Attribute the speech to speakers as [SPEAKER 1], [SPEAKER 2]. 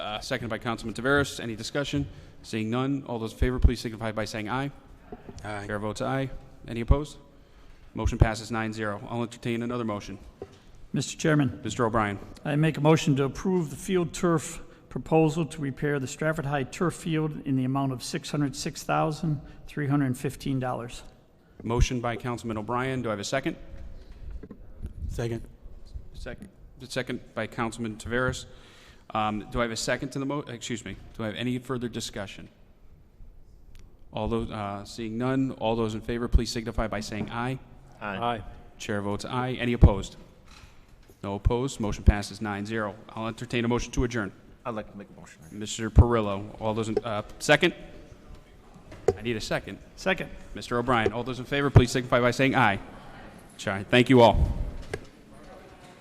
[SPEAKER 1] Uh, seconded by Councilman Taveras. Any discussion? Seeing none, all those in favor, please signify by saying aye.
[SPEAKER 2] Aye.
[SPEAKER 1] Chair votes aye. Any opposed? Motion passes 9-0. I'll entertain another motion.
[SPEAKER 3] Mr. Chairman,
[SPEAKER 1] Mr. O'Brien,
[SPEAKER 3] I make a motion to approve the field turf proposal to repair the Stratford High turf field in the amount of $606,315.
[SPEAKER 1] motion by Councilman O'Brien. Do I have a second?
[SPEAKER 2] Second.
[SPEAKER 1] Second. Second by Councilman Taveras. Um, Do I have a second to the mo, excuse me, do I have any further discussion? All those, uh, seeing none, all those in favor, please signify by saying aye.
[SPEAKER 4] Aye.
[SPEAKER 1] Chair votes aye. Any opposed? No opposed. Motion passes 9-0. I'll entertain a motion to adjourn.
[SPEAKER 4] I'd like to make a motion.
[SPEAKER 1] Mr. Perillo, all those, in uh, second? I need a second.
[SPEAKER 3] Second.
[SPEAKER 1] Mr. O'Brien, all those in favor, please signify by saying aye. Aye. Thank you all.